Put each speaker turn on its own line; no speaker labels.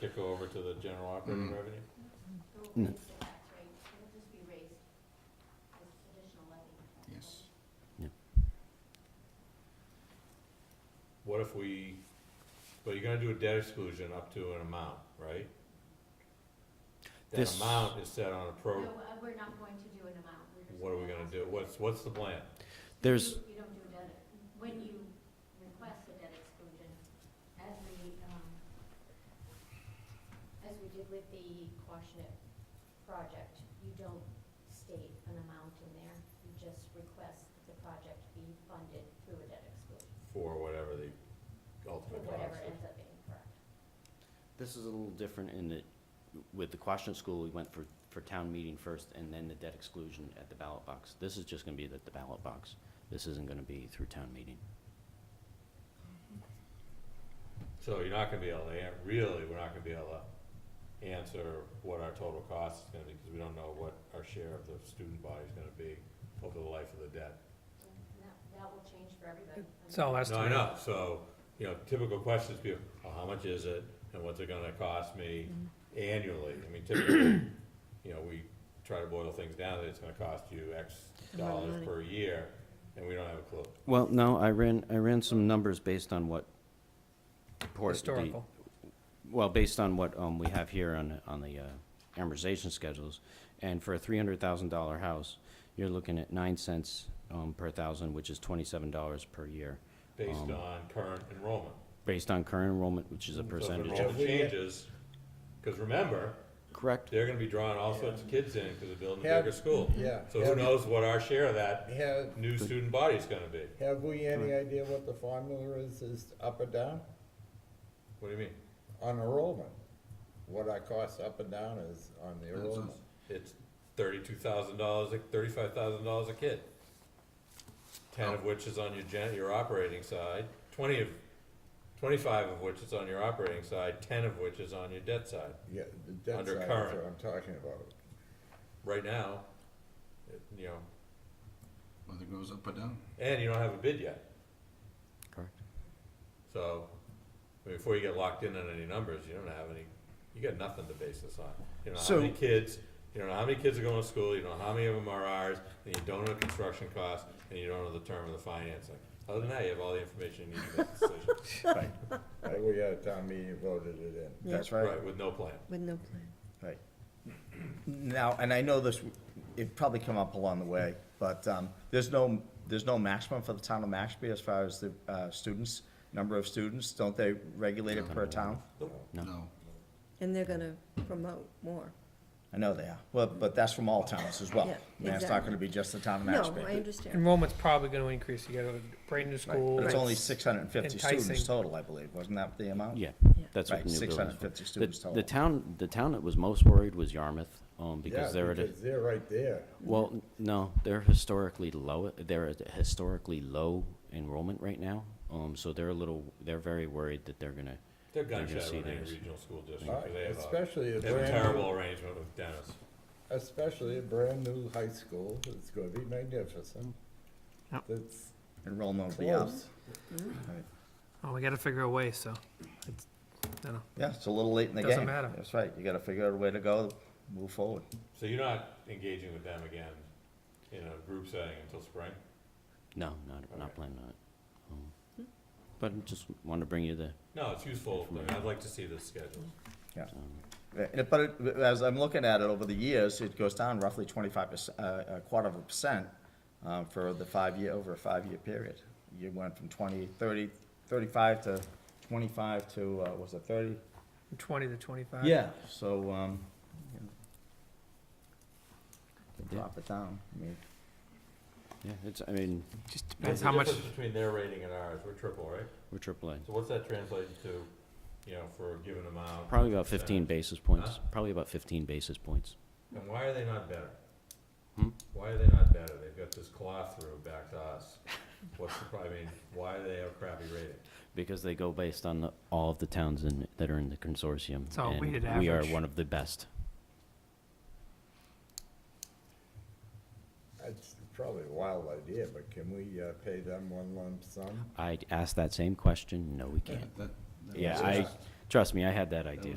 tick over to the general operating
Mm.
revenue?
It won't be the tax rate, it'll just be raised with additional levy.
Yes.
What if we, well, you're gonna do a debt exclusion up to an amount, right? That
This-
amount is set on a pro,
No, uh, we're not going to do an amount, we're just.
what are we gonna do? What's, what's the plan?
There's,
You don't do a debt, when you request a debt exclusion, as we, um, as we did with the Quashnet project, you don't state an amount in there, you just request that the project be funded through a debt exclusion,
For whatever the
or
ultimate cost
whatever
is.
ends up being correct.
this is a little different in that with the Quashnet School, we went for, for town meeting first and then the debt exclusion at the ballot box. This is just gonna be at the ballot box. This isn't gonna be through town meeting.
So you're not gonna be able to, an- really, we're not gonna be able to answer what our total cost is gonna be, because we don't know what our share of the student body is gonna be over the life of the debt.
And That, that will change for everybody. I mean,
It's all
No, I
estimated.
know, so, you know, typical questions be, well, how much is it, and what's it gonna cost me annually? I mean, typically, you know, we try to boil things down, that it's gonna cost you X
Amount of
dollars
money.
per year, and we don't have a clue.
Well, no, I ran, I ran some numbers based on what. port- the-
Historical.
Well, based on what, um, we have here on, on the, uh, amortization schedules, and for a three hundred thousand dollar house, you're looking at nine cents, um, per thousand, which is twenty-seven dollars per year,
Based
Um,
on current enrollment.
based on current enrollment, which is Mm, a percentage
So if
of.
enrollment changes, because remember,
Correct.
they're gonna be drawing all sorts of kids in because they're building a
Yeah.
bigger school.
Yeah.
So who
Have-
knows what our share of that
Have,
new student body is gonna be?
have we any idea what the formula is, is up or down
What do you mean?
on enrollment? What our cost up and down is on the enrollment?
It's thirty-two thousand dollars, thirty-five thousand dollars a kid. Ten of which is on your gen, your operating side, twenty of, twenty-five of which is on your operating side, ten of which is on your debt side.
Yeah, the debt
Under
side is
current.
what I'm talking about.
Right now, it- you know,
Whether it goes up or down.
and you don't have a bid yet.
Correct.
So, I mean, before you get locked in on any numbers, you don't have any, you got nothing to base this on. You don't know how many
So-
kids, you don't know how many kids are going to school, you don't know how many of them are ours, and you don't know the construction costs, and you don't know the term of the financing. Other than that, you have all the information you need to make a decision,
Right, we had a town meeting, voted it in.
That's
right, with no plan.
With no plan.
Right. Now, and I know this, it probably come up along the way, but um, there's no, there's no maximum for the town of Mashpee as far as the uh, students, number of students, don't they regulate it per town?
No.
And they're gonna promote more.
I know they are, well, but that's from all towns as well.
Yeah,
I mean, It's not gonna be just the town of
No,
Mashpee.
I understand.
Enrollment's probably gonna increase. You got a brand new
Right,
school.
But it's
Right.
only six hundred and fifty students
Enticing.
total, I believe, wasn't that the amount?
Yeah, that's what
Right,
the new
six
building is
hundred and
for.
fifty students
The-
total.
The town, the town that was most worried was Yarmouth, um, because
Yeah,
they're at a,
because they're right there.
well, n- no, they're historically low, they're at a historically low enrollment right now. Um, so they're a little, they're very worried that they're gonna,
They're gun
They're gonna
shy
see
with any
theirs.
regional school district,
Uh,
'cause they have a,
Especially a
they have a
brand,
terrible
new-
arrangement with Dennis.
especially a brand-new high school, it's gonna be magnificent.
Yep.
That's
Enrollment will be up.
close.
Right.
Oh, we gotta figure a way, so. it's- I don't know.
Yeah, it's a little late in the game.
Doesn't matter.
That's right, you gotta figure out a way to go, move forward.
So you're not engaging with them again in a group setting until spring?
no, not,
Okay.
not planning on it. Um, But just wanted to bring you the,
No, it's useful, I mean, I'd like to see this schedule.
um,
Yeah, and it- But it- as I'm looking at it over the years, it goes down roughly twenty-five percent, a quarter of a percent uh, for the five-year, over a five-year period. You went from 20, 30, 35 to twenty-five to, uh, was it thirty?
From Twenty to twenty-five.
Yeah. So, um, you know, can
Yeah.
drop it down, I mean,
yeah, it's, I mean,
Just
What's
depends
the
how much,
difference between their rating and ours? We're triple, right?
we're AAA.
So what's that translated to, you know, for a given amount?
Probably about fifteen basis points,
Huh?
probably about fifteen basis points.
And why are they not better?
Hmm?
Why are they not better? They've got this claw through back to us. What's the, pro- I mean, why do they have a crappy rating?
Because they go based on the- all of the towns in, that are in the consortium.
It's all
and
weighted
We are
average.
one of the best.
That's probably a wild idea, but can we, uh, pay them one lump sum?
I asked that same question, no, we can't.
That- that
Yeah,
was-
I, trust me, I had that idea.